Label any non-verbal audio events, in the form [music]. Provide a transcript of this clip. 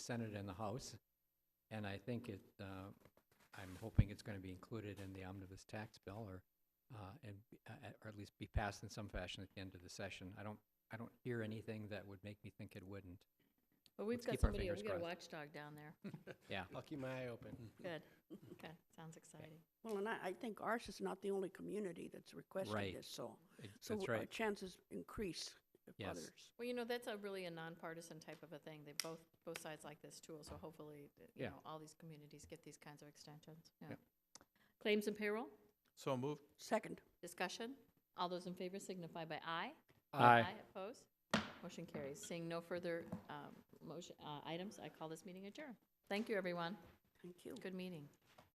Senate and the House, and I think it, uh, I'm hoping it's going to be included in the omnibus tax bill, or, uh, and, uh, uh, or at least be passed in some fashion at the end of the session. I don't, I don't hear anything that would make me think it wouldn't. But we've Let's got keep our somebody, fingers we've got a crossed. watchdog down [laughs] there. Yeah, I'll keep my eye open. Good, good, sounds exciting. Well, and I, I think ours is not the only community that's Right. requested this, so. it- so that's our right. Chances increase if Yes. others. Well, you know, that's a really a nonpartisan type of a thing. They both, both sides like this tool, so hopefully, uh, you Yeah. know, all these communities get these kinds of extensions, yeah. Yep. Claims and payroll, So moved. Second, discussion. All those in favor signify by aye. Aye. Opposed? Motion carries. Seeing no further um, motion, uh, items, I call this meeting adjourned. Thank you, everyone. thank you. Good meeting.